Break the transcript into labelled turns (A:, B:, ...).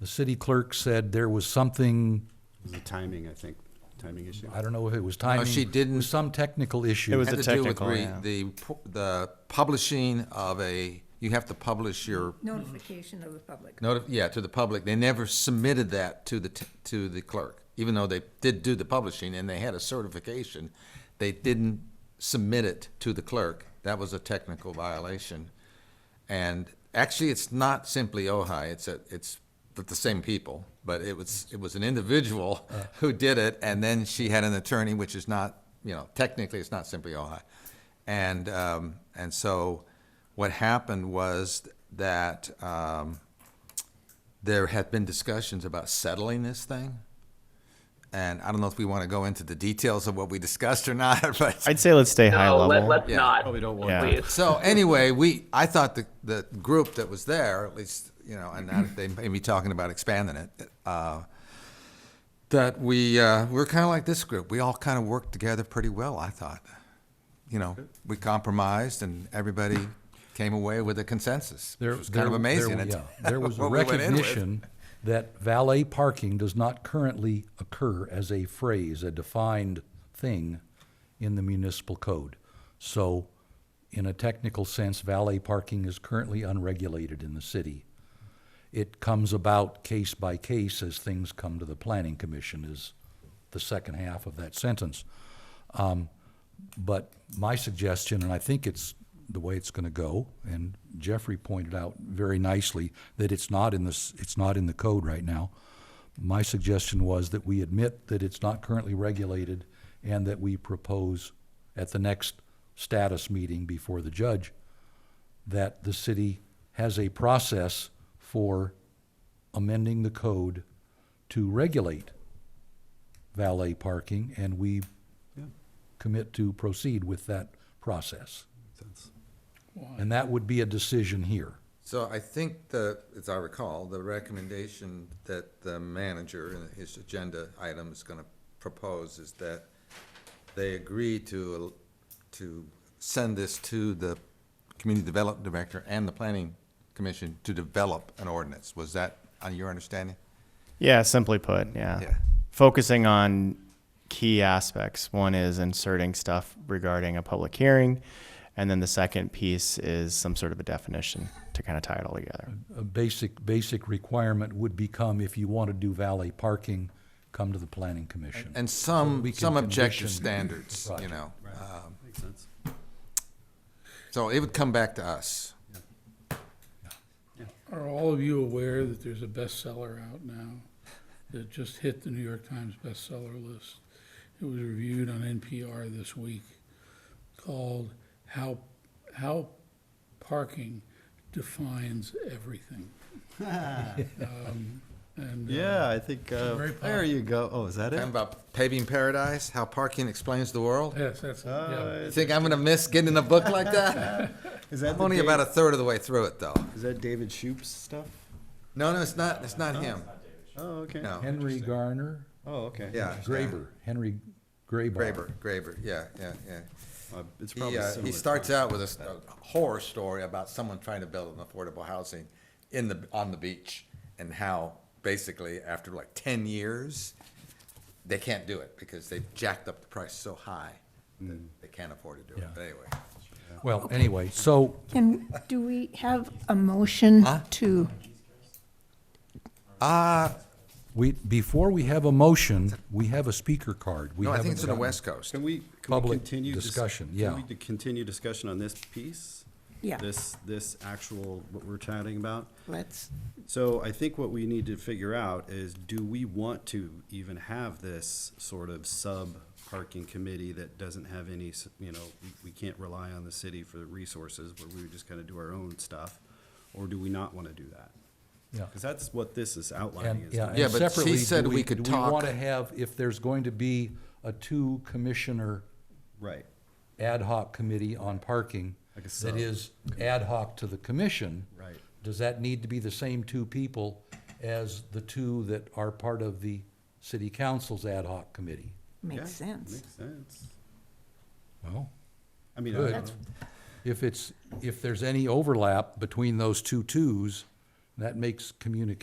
A: The city clerk said there was something,
B: The timing, I think, timing issue.
A: I don't know if it was timing.
C: she didn't.
A: it was Some technical issue.
D: It was-
C: Had
D: a
C: to do with
D: technical,
C: re-
D: yeah.
C: the, pu- the publishing of a, you have to publish your,
E: Notification of the public.
C: noti- yeah, to the public. They never submitted that to the, t- to the clerk, even though they did do the publishing and they had a certification. They didn't submit it to the clerk. That was a technical violation. And actually, it's not simply Ojai, it's a, it's the- the same people, but it was, it was an individual who did it, and then she had an attorney, which is not, you know, technically, it's not simply Ojai. And, um, and so what happened was that, um, there had been discussions about settling this thing. And I don't know if we want to go into the details of what we discussed or not, but.
D: I'd say let's stay high
F: No,
D: level.
F: let, let's
C: Yeah.
F: not.
B: Probably don't want
D: Yeah.
F: Please.
C: So anyway, we, I thought the, the group that was there, at least, you know, and now they may be talking about expanding it, uh, that we, uh, we're kind of like this group. We all kind of worked together pretty well, I thought. You know, we compromised and everybody came away with a consensus,
A: There-
C: which was kind of
A: there-
C: amazing.
A: there-
C: It's
A: yeah. There was a
C: what we went in with.
A: recognition that valet parking does not currently occur as a phrase, a defined thing in the municipal code. So in a technical sense, valet parking is currently unregulated in the city. It comes about case by case as things come to the planning commission is the second half of that sentence. But my suggestion, and I think it's the way it's gonna go, and Jeffrey pointed out very nicely that it's not in this, it's not in the code right now. My suggestion was that we admit that it's not currently regulated and that we propose at the next status meeting before the judge that the city has a process for amending the code to regulate valet parking, and we commit to proceed with that process. And that would be a decision here.
C: So I think the, as I recall, the recommendation that the manager in his agenda item is gonna propose is that they agree to, to send this to the community development director and the planning commission to develop an ordinance. Was that on your understanding?
D: Yeah, simply put, yeah.
C: Yeah.
D: Focusing on key aspects. One is inserting stuff regarding a public hearing, and then the second piece is some sort of a definition to kind of tie it all together.
A: A basic, basic requirement would become if you want to do valet parking, come to the planning commission.
C: And some,
A: we can
C: some objective
A: condition
C: standards,
A: the
C: you know. um,
B: Makes sense.
C: So it would come back to us.
G: Are all of you aware that there's a bestseller out now that just hit the New York Times bestseller list? It was reviewed on NPR this week called How, How Parking Defines Everything. Um, And. uh,
B: Yeah, I think, uh,
G: Very
B: there you go. Oh, is that
C: Talking
B: it?
C: about paving paradise, how parking explains the world.
G: Yes, that's, yeah.
C: You think I'm gonna miss getting a book like that?
B: Is that
C: I'm
B: the
C: only
B: Dave-
C: about a third of the way through it, though.
B: Is that David Shoup's stuff?
C: No, no, it's not. It's not him.
B: Oh, okay.
C: No.
A: Henry Garner,
B: Oh, okay.
C: Yeah.
A: Graber, Henry Graber.
C: Graber. Graber. Yeah, yeah, yeah.
B: Uh, It's
C: He,
B: probably
C: uh,
B: similar.
C: he starts out with a, s- a horror story about someone trying to build an affordable housing in the on the beach, and how basically after like ten years, they can't do it because they've jacked up the price so high that they can't afford to do it.
A: Yeah.
C: But anyway,
A: Well, anyway, so
E: Can, do we have a motion to,
C: ah,
A: we, before we have a motion, we have a speaker card. We
C: no, I
A: haven't
C: think it's in the
A: gotten-
C: West Coast.
B: Can we, can we
A: Public
B: continue? dis-
A: discussion,
B: can
A: yeah.
B: we d- continue discussion on this piece?
E: Yeah.
B: This, this actual, what we're chatting about?
E: let's,
B: So I think what we need to figure out is, do we want to even have this sort of sub-parking committee that doesn't have any, s- you know, we- we can't rely on the city for the resources, where we would just kind of do our own stuff? Or do we not want to do that?
A: Yeah.
B: Because that's what this is outlining.
A: And,
B: is
A: yeah,
C: Yeah,
A: and
C: but she
A: separately,
C: said
A: do
C: we
A: we,
C: could
A: do we want to
C: talk.
A: have, if there's going to be a two-commissioner
B: Right,
A: ad hoc committee on parking
B: Like a
A: that
B: sub.
A: is ad hoc to the commission.
B: Right.
A: Does that need to be the same two people as the two that are part of the city council's ad hoc committee?
B: Yeah,
E: makes sense.
B: makes sense.
A: Well.
B: I mean, I
A: Good.
B: don't know.
A: If it's, if there's any overlap between those two twos, that makes communication